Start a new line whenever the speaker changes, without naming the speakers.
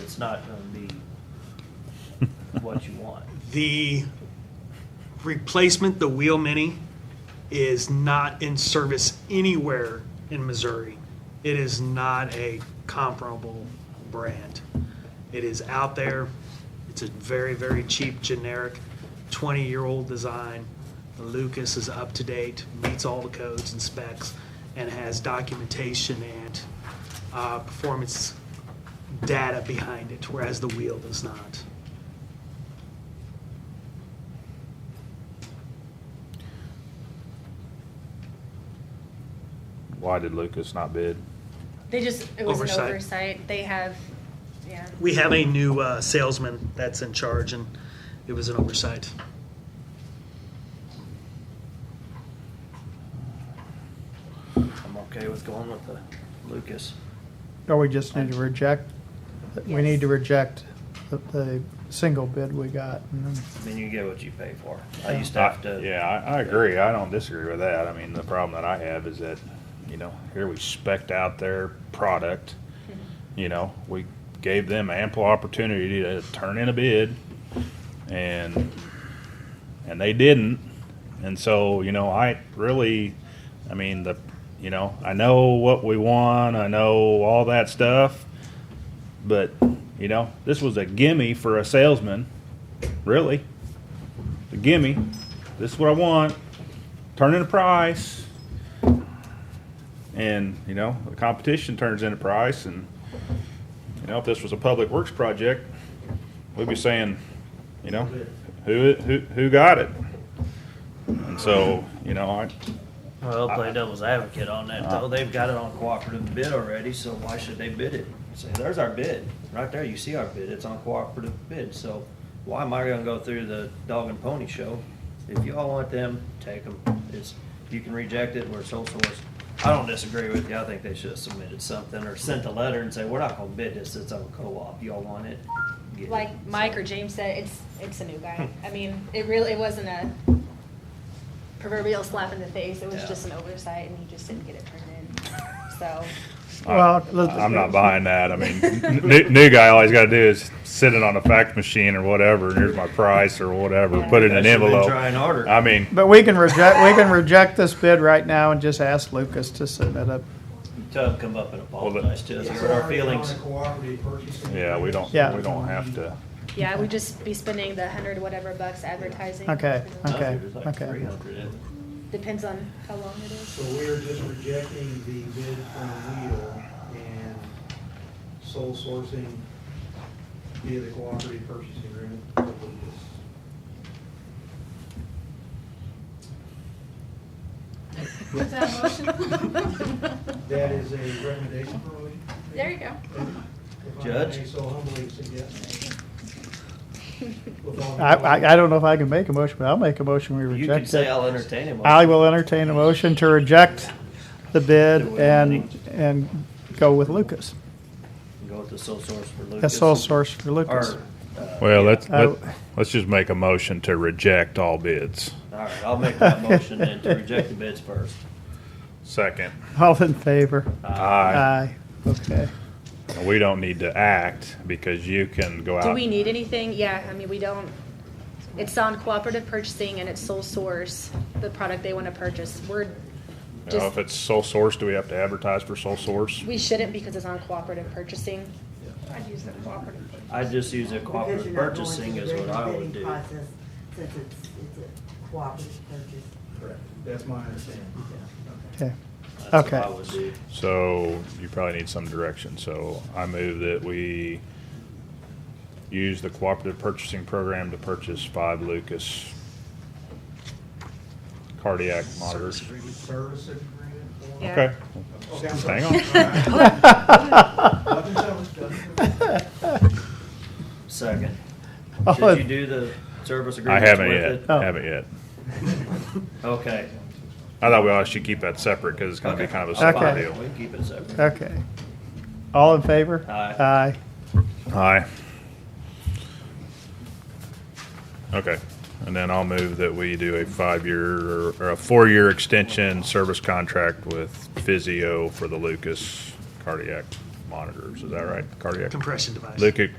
it's not gonna be what you want.
The replacement, the Wheel Mini, is not in service anywhere in Missouri. It is not a comparable brand. It is out there. It's a very, very cheap, generic, 20-year-old design. Lucas is up to date, meets all the codes and specs, and has documentation and uh, performance data behind it, whereas the wheel does not.
Why did Lucas not bid?
They just, it was an
Oversight.
oversight. They have, yeah.
We have a new uh, salesman that's in charge, and it was an oversight.
I'm okay with going with the Lucas.
Or Oh, we just need to reject, we
Yes.
need to reject the, the single bid we got. and then-
I mean, you get what you pay for. I used to have to.
Uh, Yeah, I, I agree. I don't disagree with that. I mean, the problem that I have is that, you know, here we spec'd out their product.
Mm-hmm.
You know, we gave them ample opportunity to turn in a bid and, and they didn't. And so, you know, I really, I mean, the, you know, I know what we want. I know all that stuff. But, you know, this was a gimme for a salesman, really. A gimme. This is what I want. Turn in a price. And, you know, the competition turns in a price. And, you know, if this was a public works project, we'd be saying, you know, who, who, who got it? And so, you know, I,
Well, play devil's advocate on that though. They've got it on cooperative bid already, so why should they bid it? Say, there's our bid. Right there, you see our bid. It's on cooperative bid, so why am I gonna go through the dog and pony show? If y'all want them, take them. It's, you can reject it, we're sole source. I don't disagree with you. I think they should have submitted something or sent a letter and say, we're not gonna bid this. It's on co-op. Y'all want it? Get it."
Like Mike or James said, it's, it's a new guy.
Hmm.
I mean, it really, it wasn't a proverbial slap in the face. It was
Yeah.
just an oversight and he just didn't get it printed. So,
Well, let's-
I, am not buying that. I mean, new, new guy, all he's got to do is sit it on a fax machine or whatever, and here's my price or whatever. Put it in
I
an
should've been
envelope.
Trying harder.
I mean,
But we can reject, we can reject this bid right now and just ask Lucas to submit a,
Tub come up and
Well, the-
apologize to us, hurt our feelings.
yeah, we don't.
Yeah.
We don't have to.
yeah, we'd just be spending the hundred whatever bucks advertising.
Okay,
You know,
okay.
It was like
okay.
300, isn't it?
Depends on how long it is.
So we are just rejecting the bid from Wheel and sole sourcing via the cooperative purchasing agreement with Lucas.
Was that a motion?
That is a recommendation for Lee?
There you go.
Judge?
If I may so humbly suggest. With all-
I, I, I don't know if I can make a motion, but I'll make a motion, we
You can
reject
say
it.
I'll entertain him.
I will entertain a motion to reject the bid and, and go with Lucas,
Go with the sole source for Lucas.
a sole source for Lucas.
Or, uh,
Well, let's
I-
let, let's just make a motion to reject all bids.
all right, I'll make that motion then to reject the bids first.
Second,
All in favor?
aye.
Okay.
And we don't need to act because you can go
Do
out.
we need anything? Yeah, I mean, we don't, it's on cooperative purchasing and it's sole source, the product they want to purchase. We're
you know,
just,
if it's sole source, do we have to advertise for sole source?
we shouldn't because it's on cooperative purchasing.
I'd use the cooperative.
I just use a cooperative purchasing is what I would do.
Since it's, it's a cooperative purchase.
Correct. That's my understanding, yeah. Okay.
Okay.
That's what
Okay.
I would do.
So you probably need some direction. So I move that we use the cooperative purchasing program to purchase five Lucas cardiac monitors.
Service agreement for?
Yeah.
Okay,
Okay, I'm sorry.
hang on.
Nothing tells, doesn't it?
Second.
All
Did you
in-
do the service
I
agreement with
haven't
it?
yet,
Oh.
haven't yet.
Okay.
I thought we all should keep that separate because it's gonna be
Okay.
kind of a
That's
separate
Okay.
fine.
deal.
We can keep it separate.
Okay. All in favor?
Aye.
Aye.
Aye. Okay, and then I'll move that we do a five-year or- or a four-year extension service contract with Physio for the Lucas cardiac monitors. Is that right? Cardiac
Compression device.
Lucas